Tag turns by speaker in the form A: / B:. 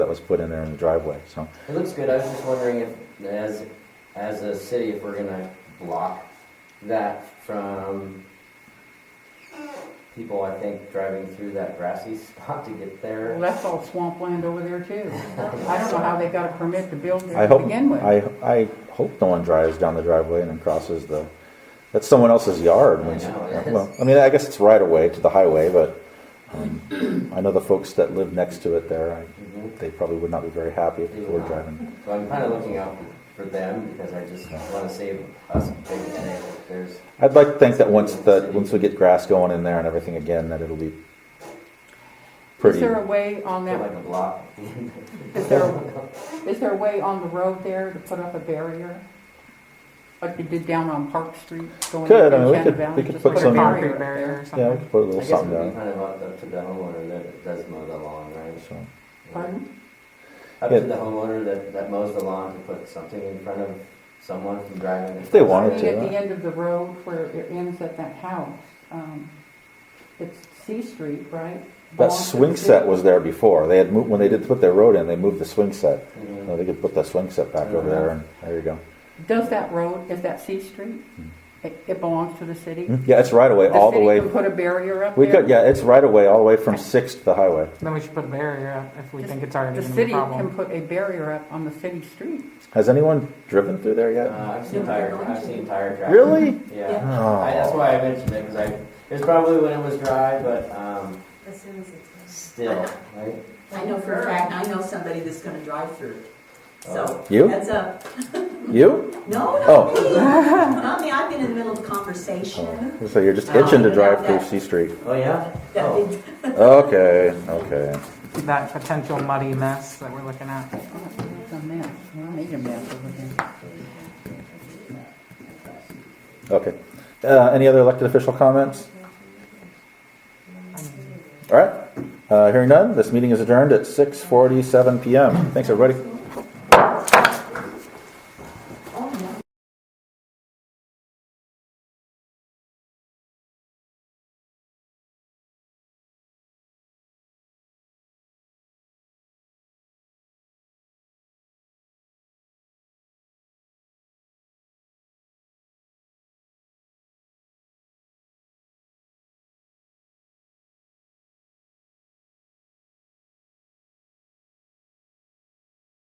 A: that was put in there in the driveway, so.
B: It looks good, I was just wondering if, as, as a city, if we're gonna block that from people, I think, driving through that grassy spot to get
C: Well,
B: there.
C: that's all swampland over there too. I don't know how they got a permit to build
A: I
C: there to
A: hope,
C: begin with.
A: I, I hope no one drives down the driveway and then crosses the, that's someone else's yard.
B: I
A: when it's-
B: know, it is.
A: Well, I mean, I guess it's right away to the highway, but, um, I know the folks that live next to it there, I,
B: Mhm.
A: they probably would not be very happy if people were driving.
B: So I'm kinda looking out for them, because I just wanna save us a big today, if there's,
A: I'd like to think that once that, once we get grass going in there and everything again, that it'll be
C: Is
A: pretty.
C: there a way on
B: feel like
C: that,
B: a block.
C: is there, is there a way on the road there to put up a barrier? Like they did down on Park Street going
A: Could, I
C: into
A: mean, we
C: Shannon
A: could-
C: Valley,
A: we could
C: just
A: put
C: a
A: some-
C: barrier up
D: barrier or
A: Yeah, we
D: something.
A: could put a
B: I
A: little
B: guess it
A: something
B: would be
A: down,
B: kind of up to the homeowner that does mow the lawn, right?
A: so.
C: there. Pardon?
B: Up
A: Yeah.
B: to the homeowner that, that mows the lawn to put something in front of someone from driving.
A: If they
C: I
A: wanted
C: mean,
A: to.
C: at the end of the road where it ends at that house, um, it's C Street, right?
A: That
C: Belongs to
A: swing
C: the city.
A: set was there before. They had moved, when they did put their road in, they moved the swing set.
B: Mhm.
A: Now they could put that swing set back over there and there you go.
C: Does that road, is that C Street?
A: Hmm.
C: It, it belongs to the city?
A: Yeah, it's right away, all the way.
C: city can put a barrier up there?
A: We could, yeah, it's right away, all the way from Sixth to the highway.
D: Then we should put a barrier up if we
C: Just-
D: think it's already
C: The
D: gonna be a
C: city can
D: problem.
C: put a barrier up on the city street.
A: Has anyone driven through there yet?
B: Uh, I've seen tire, I've seen tire traffic.
A: Really?
B: Yeah. I, that's
A: Oh,
B: why I mentioned it because I it's probably when it was dry, but um,
E: As soon as it's.
B: still, right?
F: I know for a fact, I know somebody that's gonna drive through it. So,
A: Uh, you?
F: that's a,
A: You?
F: no, not
A: Oh.
F: me. Not me, I've been in the middle of a conversation.
A: Oh, So you're just itching to drive through C Street.
B: Oh yeah.
F: That
B: Oh.
F: did-
A: Okay, okay.
D: That potential muddy mess that we're looking at.
C: It's a mess. Well, I made a mess over there.
A: Okay. Uh, any other elected official comments? All right. Uh, hearing none, this meeting is adjourned at 6:47 PM. Thanks, everybody.
F: oh,